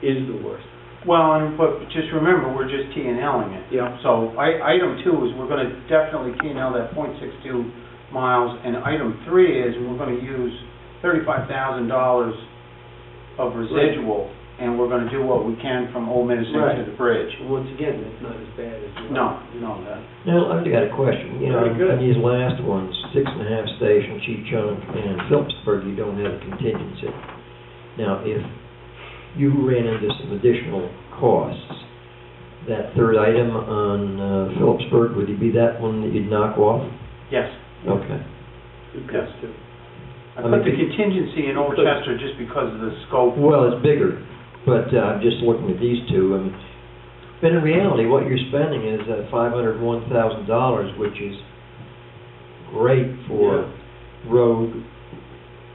is the worst. Well, and, but just remember, we're just T and Ling it. Yeah. So, I, item two is we're gonna definitely T and L that point six two miles, and item three is we're gonna use thirty-five thousand dollars of residual, and we're gonna do what we can from Old Medicine to Right. the bridge. Once again, that's not as bad as. the- No, no, that, Now, I've got a question, you know, Very good. on these last ones, six and a half station, Chief Chunk, and Phillipsburg, you don't have a contingency. Now, if you ran into some additional costs, that third item on uh, Phillipsburg, would it be that one that you'd knock off? yes. Okay. It comes to- I I mean, put the be- contingency in Old Chester just because of the scope. Well, it's bigger, but uh, I'm just looking at these two, and, but in reality, what you're spending is uh, five hundred and one thousand dollars, which is great for road,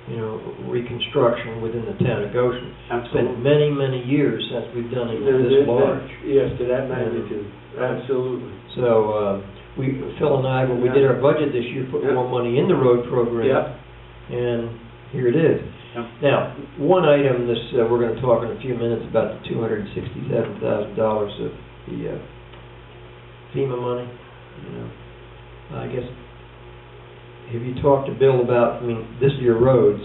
you know, reconstruction within the town of Goshen. It's been many, many years since we've done it There- there- this that- large. Yes, to that magnitude, absolutely. So, uh, we, Phil and I, when we did our budget this year, put Yeah. more money in the road program. Yep, And here it is. Yep. Now, one item this, uh, we're gonna talk in a few minutes about the two hundred and sixty-seven thousand dollars of the uh, FEMA money, you know. I guess, have you talked to Bill about, I mean, this is your roads,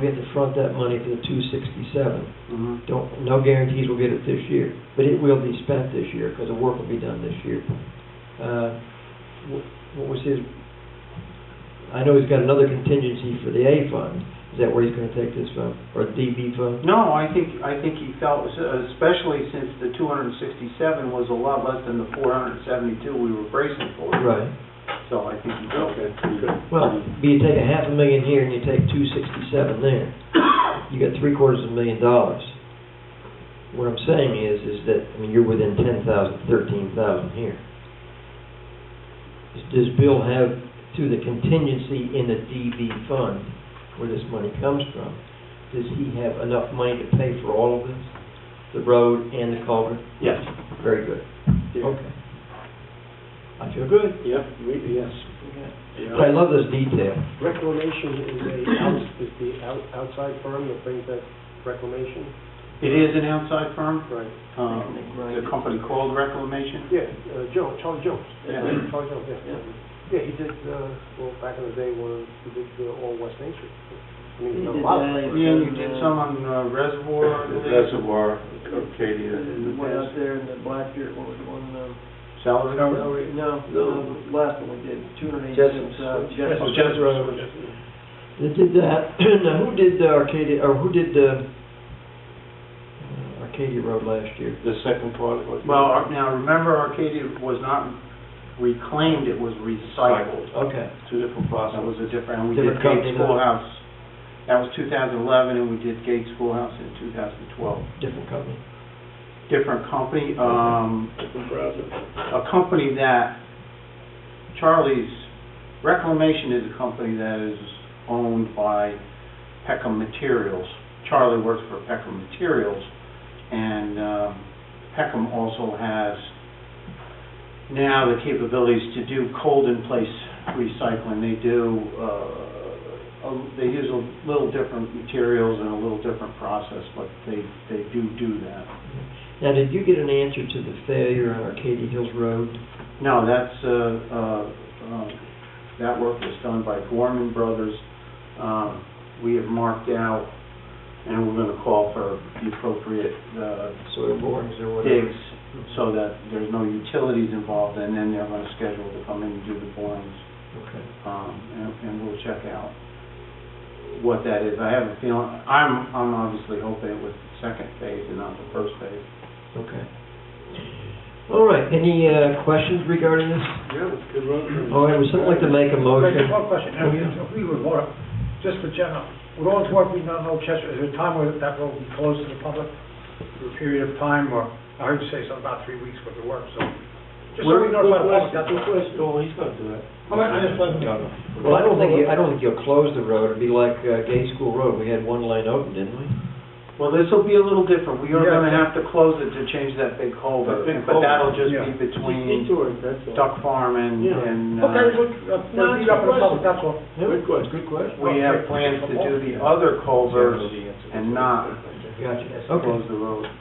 we have to front that money for the two sixty-seven. Mhm. Don't, no guarantees we'll get it this year, but it will be spent this year, because the work will be done this year. Uh, wh- What was his, I know he's got another contingency for the A fund, is that where he's gonna take this from, or DB fund? No, I think, I think he felt, especially since the two hundred and sixty-seven was a lot less than the four hundred and seventy-two we were bracing for. Right, So I think he felt okay, good. well, be you take a half a million here and you take two sixty-seven there, you got three quarters of a million dollars. What I'm saying is, is that, I mean, you're within ten thousand, thirteen thousand here. Does- Does Bill have, through the contingency in the DB fund, where this money comes from, does he have enough money to pay for all of this? The road and the culvert? Yes. Very good. Yeah. Okay. I feel good. Yep, we, yes. Yeah. I love this detail. Reclamation is a, outs- is the out- outside firm that brings that reclamation? It is an outside firm, Right. um, the company called Reclamation. Yeah, uh, Joe, Charlie Jones. Yeah. Charlie Jones, yeah. Yeah, he did, uh, well, back in the day, when he did uh, all West Main Street. I mean, he's done a lot of Yeah, things. you did some on uh, Reservoir. I think. Reservoir, Arcadia. the one out there in the black dirt, what was the one, um, Salary cover? No, No. last one we did, two hundred Oh, Jess Road. They did that, now who did the Arcadia, or who did the uh, Arcadia Road last year? The second part of it. Well, Ar- now, remember Arcadia was not reclaimed, it was recycled. Okay, Two different That was processes. a different, and we did Different Gates company, though. Schoolhouse, that was 2011, and we did Gates Schoolhouse in 2012. different company. Different company, um, Different process. a company that, Charlie's Reclamation is a company that is owned by Peckham Materials. Charlie works for Peckham Materials, and um, Peckham also has now the capabilities to do cold-in-place recycling. They do, uh, a- they use a little different materials and a little different process, but they, they do do that. Now, did you get an answer to the failure on Arcadia Hills Road? No, that's, uh, uh, um, that work was done by Gorman Brothers. Um, We have marked out, and we're going to call for the appropriate uh, Soil borings or whatever? digs so that there's no utilities involved, and then they're going to schedule to come in and do the borings. Okay. Um, And and we'll check out what that is. I have a feeling, I'm I'm obviously hoping it was the second phase and not the first phase. Okay. All right, any uh, questions regarding this? Yeah, it's good road. All right, would someone like to make a motion? One question, Oh, yeah. if we were Laura, just for general, with all the work we've done in Old Chester, is there a time where that road will be closed to the public for a period of time, or, I heard you say something about three weeks worth of work, so, just so we know about the public, that's what. Oh, he's going to do that. All right, I just wanted to know. Well, I don't think, you- I don't think you'll close the road, it'd be like uh, Gay School Road, we had one lane open, didn't we? Well, this will be a little different. We are Yeah. gonna have to close it to change that big That culvert, big but that'll culvert, just yeah. be between Detours, that's all. Duck Farm and, Yeah. and, uh, Okay, look, uh, that'll be up to the public, that's all. Good question. Good question. we have plans to do the other culverts and not Gotcha, Yes, okay. Close the road.